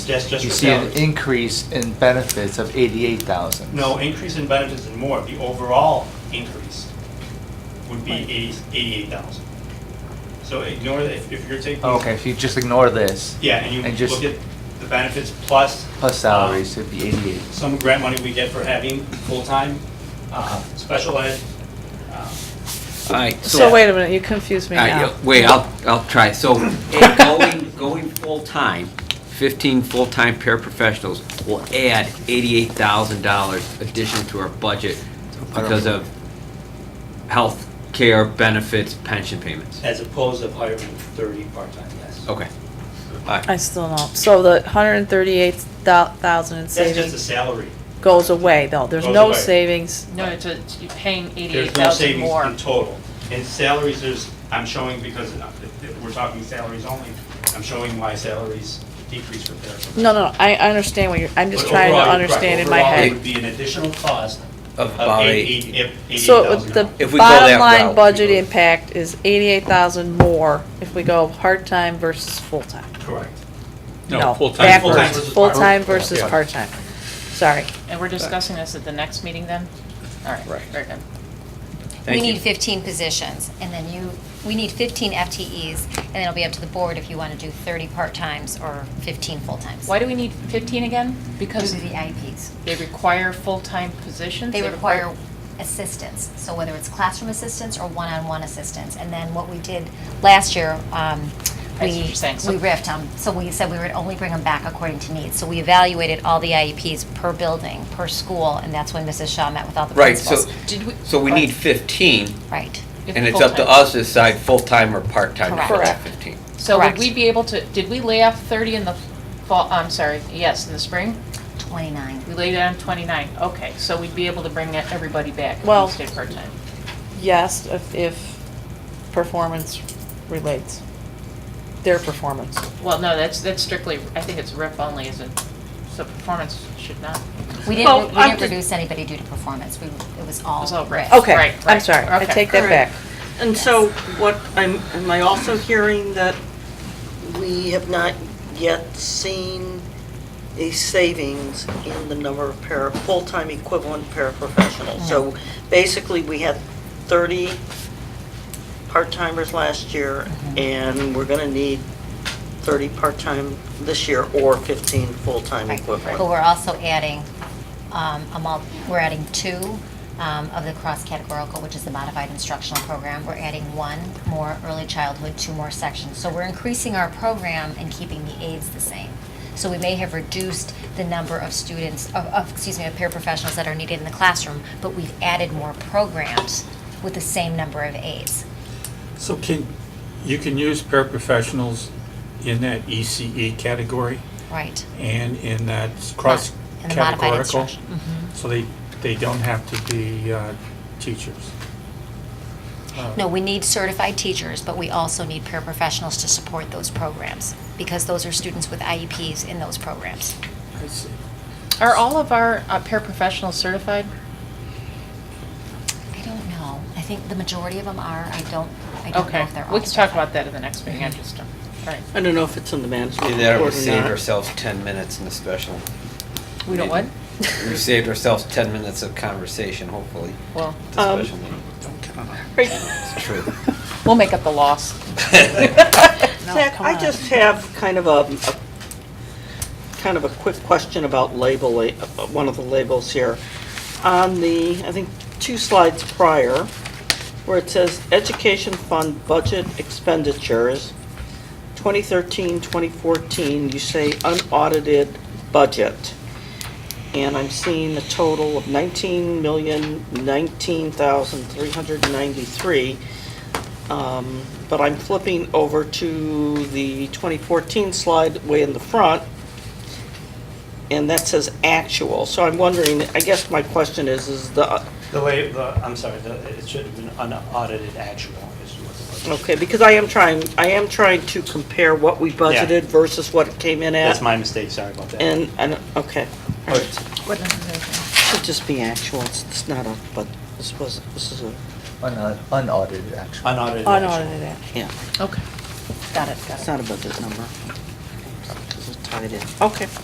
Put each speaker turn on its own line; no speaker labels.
That's just
You
for
see an
salaries.
increase in benefits of eighty-eight thousand.
No, increase in benefits and more, the overall increase would be eighty-eight thousand. So uh, ignore, that. if if you're taking.
Okay, if you just ignore this.
Yeah, and you
And
look
just
at the benefits plus.
plus salaries,
um,
it'd be eighty-eight.
Some grant money we get for having full-time, uh, special ed. uh,
All right,
Yeah.
So wait a minute, you confused me
all right,
now.
yeah, wait, I'll, I'll try. So eh, going, going full-time, 15 full-time paraprofessionals will add $88,000 addition to our budget because of health care, benefits, pension payments.
As opposed to hiring thirty part-time, yes.
Oh.
Okay. All right,
I still don't. So the hundred and thirty-eight thousand in
That's just the
savings
salary.
goes away though. There's
Goes
no
away.
savings.
No, it's a, you're paying eighty-eight
There's no
thousand
savings
more.
in total. In salaries, there's, I'm showing because uh, if- if we're talking salaries only, I'm showing why salaries decrease for paraprofessionals.
No, no, I, I understand what you're, I'm just
But
trying to
overall, you're correct.
understand in my
Overall, it
head.
would be an additional cost
Of
of
about
eight-
eight-
eight- eight-
So it would- the
$88,000.
If we go that
bottom
route, we
line budget
go-
impact is eighty-eight thousand more if we go part-time versus full-time.
Correct.
No,
full-time
backwards.
versus
Full-time
part-time.
versus
Yeah.
part-time. Sorry.
And we're discussing this at the next meeting then? All right,
Right.
very good.
thank
We
you.
need 15 positions, and then you, we need 15 FTEs, and then it'll be up to the board if you want to do 30 part-times or 15 full-times.
Why do we need fifteen again?
Due
Because
to the IEPs.
they require full-time positions?
They require assistance, so whether it's classroom assistance or one-on-one assistance. And then what we did last year, um,
That's what
we,
you're saying, so-
we riffed on, so we said we would only bring them back according to needs. So we evaluated all the IEPs per building, per school, and that's when Mrs. Shaw met with all the
Right, so,
principals.
Did we?
so we need 15,
Right.
If
and it's up to
full-time.
us to decide full-time or part-time to put that
Correct.
15.
So would
correct.
we be able to, did we lay off thirty in the fall, I'm sorry, yes, in the spring?
29.
We laid down twenty-nine, okay, so we'd be able to bring e-, everybody back
Well-
who stayed part-time?
Yes, if, if performance relates. Their performance.
Well, no, that's, that's strictly, I think it's RIF only, is it? So performance should not.
We
Well,
didn't, we
I'm
didn't
just-
reduce anybody due to performance, we, it was all.
It was all risk.
risk.
Okay,
Right,
I'm
right,
sorry. I
okay.
take that back.
Correct. And so what, I'm, am I also hearing that we have not yet seen a savings in the number of para, full-time equivalent paraprofessionals? So basically, we had 30 part-timers last year,
Mm-hmm.
and we're going to need 30 part-time this year or 15 full-time
Right.
equivalent.
But we're also adding, um, a mul, we're adding two um, of the cross-categorical, which is the modified instructional program. We're adding one more early childhood, two more sections. So we're increasing our program and keeping the aides the same. So we may have reduced the number of students, of, of, excuse me, of paraprofessionals that are needed in the classroom, but we've added more programs with the same number of aides.
So can, you can use paraprofessionals in that ECE category
Right.
and in that cross
In the modified
categorical?
instruction.
So they, they don't have to be uh, teachers?
Oh.
No, we need certified teachers, but we also need paraprofessionals to support those programs, because those are students with IEPs in those programs.
I see.
Are all of our uh, paraprofessionals certified?
I don't know. I think the majority of them are. I don't, I don't know
Okay,
if they're all.
we can talk about that in the next meeting, I just, um, all right.
I don't know if it's in the management
And
report or
that
not.
we saved ourselves 10 minutes in the special.
We don't what?
We saved ourselves 10 minutes of conversation, hopefully,
Well,
at
Um,
the special meeting.
Right.
It's true.
we'll make up the loss.
Zach,
come
I
on.
just have kind of a, a- kind of a quick question about label, uh, one of the labels here. On the, I think, two slides prior, where it says Education Fund Budget Expenditures, 2013, 2014, you say unaudited budget. And I'm seeing a total of 19,019,393. Um, But I'm flipping over to the 2014 slide way in the front, and that says actual. So I'm wondering, I guess my question is, is the,
The way, the, I'm sorry, the, it should have been unaudited actual is what it was.
okay, because I am trying, I am trying to compare what we budgeted versus what it came in at.
That's my mistake, sorry about that.
And, and, okay, all right.
But
Should just be actual, it's it's not a, but this was, this is a,
Unau- Unaudited, actually.
Unaudited actual.
Unaudited.
yeah,
Okay.
Got it, got
it's not a budget number. It's a tied in. Okay.